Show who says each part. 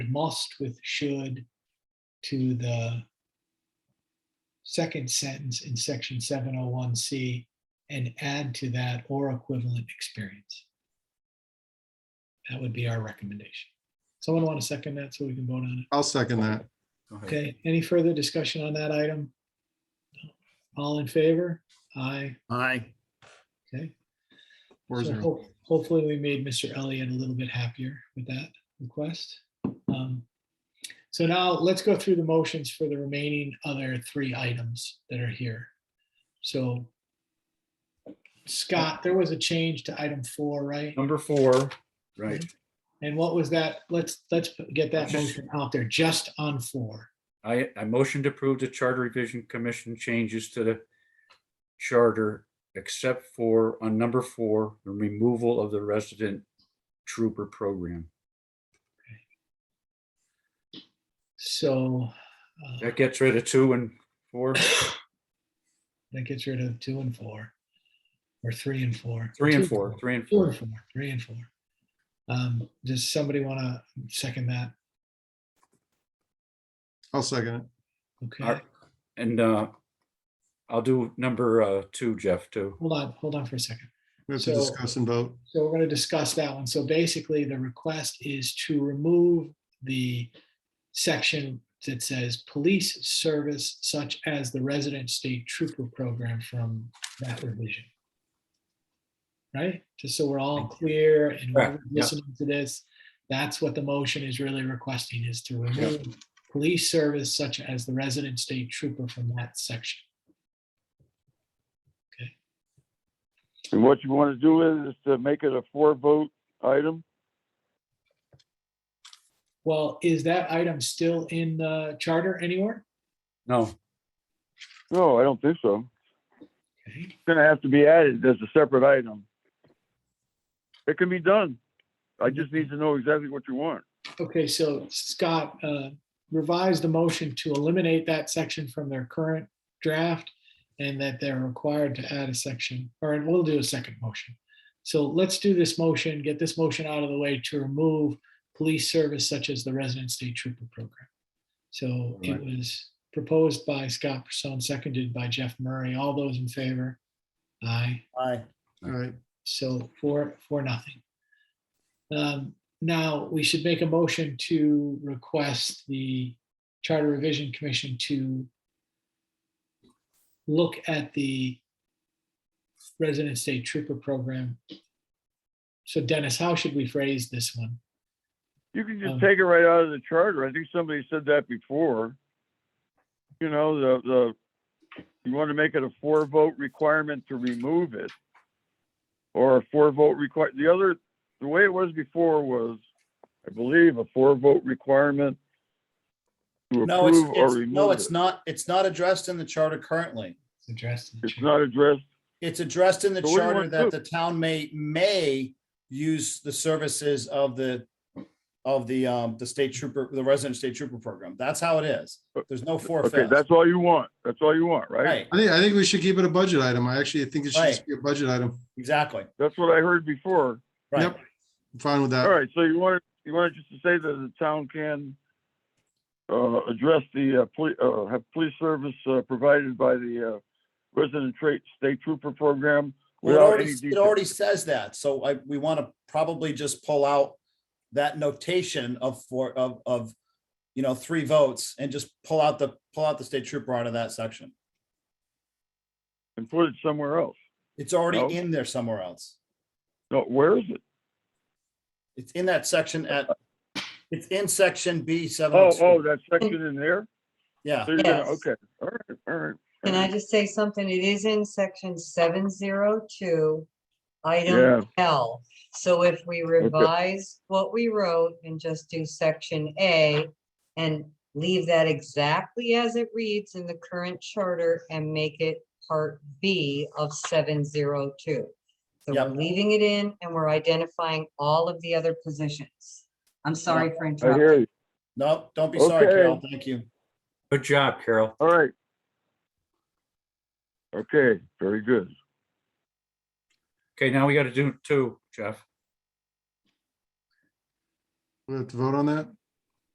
Speaker 1: must with should to the second sentence in section seven oh one C and add to that or equivalent experience. That would be our recommendation. Someone want to second that so we can vote on it?
Speaker 2: I'll second that.
Speaker 3: Go ahead.
Speaker 1: Okay, any further discussion on that item? All in favor? Aye,
Speaker 4: Aye.
Speaker 1: okay.
Speaker 2: Four
Speaker 1: So
Speaker 2: zero.
Speaker 1: ho- Hopefully, we made Mr. Elliott a little bit happier with that request. Um, So now let's go through the motions for the remaining other three items that are here. So Scott, there was a change to item four, right?
Speaker 3: Number four, right,
Speaker 1: And what was that? Let's, let's get that motion out there, just on four.
Speaker 3: I, I motion to approve the Charter Revision Commission changes to the charter, except for on number four, the removal of the resident trooper program.
Speaker 1: So uh,
Speaker 3: That gets rid of two and four,
Speaker 1: that gets rid of two and four, or three and four.
Speaker 3: three
Speaker 1: Two
Speaker 3: and four, three and
Speaker 1: Four and
Speaker 3: four.
Speaker 1: four, three and four. Um, does somebody want to second that?
Speaker 2: I'll second it.
Speaker 1: Okay,
Speaker 3: Alright. And, uh, I'll do number, uh, two, Jeff, too.
Speaker 1: hold on, hold on for a second.
Speaker 2: We have to
Speaker 1: So-
Speaker 2: discuss and vote.
Speaker 1: So we're going to discuss that one. So basically, the request is to remove the section that says police service such as the resident state trooper program from that revision. Right? Just so we're all clear and we're
Speaker 3: Correct, yeah.
Speaker 1: listening to this, that's what the motion is really requesting is to remove police service such as the resident state trooper from that section.
Speaker 5: And what you want to do is, is to make it a four vote item?
Speaker 1: Well, is that item still in the charter anywhere?
Speaker 3: No,
Speaker 5: No, I don't think so.
Speaker 1: Okay.
Speaker 5: It's gonna have to be added as a separate item. It can be done. I just need to know exactly what you want.
Speaker 1: Okay, so Scott, uh, revise the motion to eliminate that section from their current draft and that they're required to add a section, or we'll do a second motion. So let's do this motion, get this motion out of the way to remove police service such as the resident state trooper program. So it
Speaker 3: Alright.
Speaker 1: was proposed by Scott Person, seconded by Jeff Murray. All those in favor? Aye.
Speaker 4: Aye.
Speaker 2: All right.
Speaker 1: So for, for nothing. Um, Now, we should make a motion to request the Charter Revision Commission to look at the resident state trooper program. So Dennis, how should we phrase this one?
Speaker 5: You can
Speaker 1: Um,
Speaker 5: just take it right out of the charter. I think somebody said that before. You know, the, the, you want to make it a four vote requirement to remove it. Or a four vote require, the other, the way it was before was, I believe, a four vote requirement to
Speaker 4: No, it's,
Speaker 5: approve or
Speaker 4: it's- no,
Speaker 5: remove it.
Speaker 4: it's not, it's not addressed in the charter currently.
Speaker 1: It's addressed. in the
Speaker 5: It's
Speaker 1: charter.
Speaker 5: not addressed.
Speaker 4: It's addressed in the
Speaker 5: So what do you
Speaker 4: charter
Speaker 5: want to
Speaker 4: that
Speaker 5: do?
Speaker 4: the town may, may use the services of the, of the, um, the state trooper, the resident state trooper program. That's how it is. There's no
Speaker 5: Okay,
Speaker 4: forfeit.
Speaker 5: that's all you want. That's all you want, right?
Speaker 4: Right,
Speaker 2: I think, I think we should keep it a budget item. I actually think it should just
Speaker 4: Right.
Speaker 2: be a budget item.
Speaker 4: exactly,
Speaker 5: That's what I heard before.
Speaker 4: right.
Speaker 2: Yep. I'm Fine with
Speaker 5: All
Speaker 2: that.
Speaker 5: right, so you want, you want just to say that the town can uh, address the, uh, poli- uh, have police service uh, provided by the uh, resident trait state trooper program?
Speaker 4: Well, It
Speaker 5: without
Speaker 4: already,
Speaker 5: any
Speaker 4: it
Speaker 5: detail.
Speaker 4: already says that, so I, we want to probably just pull out that notation of four, of, of, you know, three votes and just pull out the, pull out the state trooper out of that section.
Speaker 5: And put it somewhere else.
Speaker 4: It's already
Speaker 5: No.
Speaker 4: in there somewhere else.
Speaker 5: No, where is it?
Speaker 4: It's in that section at, it's in section B seven.
Speaker 5: Oh, oh, that section in there?
Speaker 4: Yeah,
Speaker 5: So you're gonna-
Speaker 6: Yes.
Speaker 5: Okay, all right, all right. all
Speaker 6: Can I
Speaker 5: right.
Speaker 6: just say something? It is in section seven zero two,
Speaker 5: Yeah.
Speaker 6: item L. So if we revise what we wrote and just do section A and leave that exactly as it reads in the current charter and make it part B of seven zero two. So we're
Speaker 4: Yep.
Speaker 6: leaving it in and we're identifying all of the other positions. I'm sorry for
Speaker 5: I hear
Speaker 6: interrupting.
Speaker 5: you.
Speaker 4: no, don't be sorry, Carol.
Speaker 5: Okay.
Speaker 4: Thank you.
Speaker 3: good job, Carol.
Speaker 5: All right. Okay, very good.
Speaker 3: Okay, now we gotta do two, Jeff.
Speaker 2: We have to vote on that.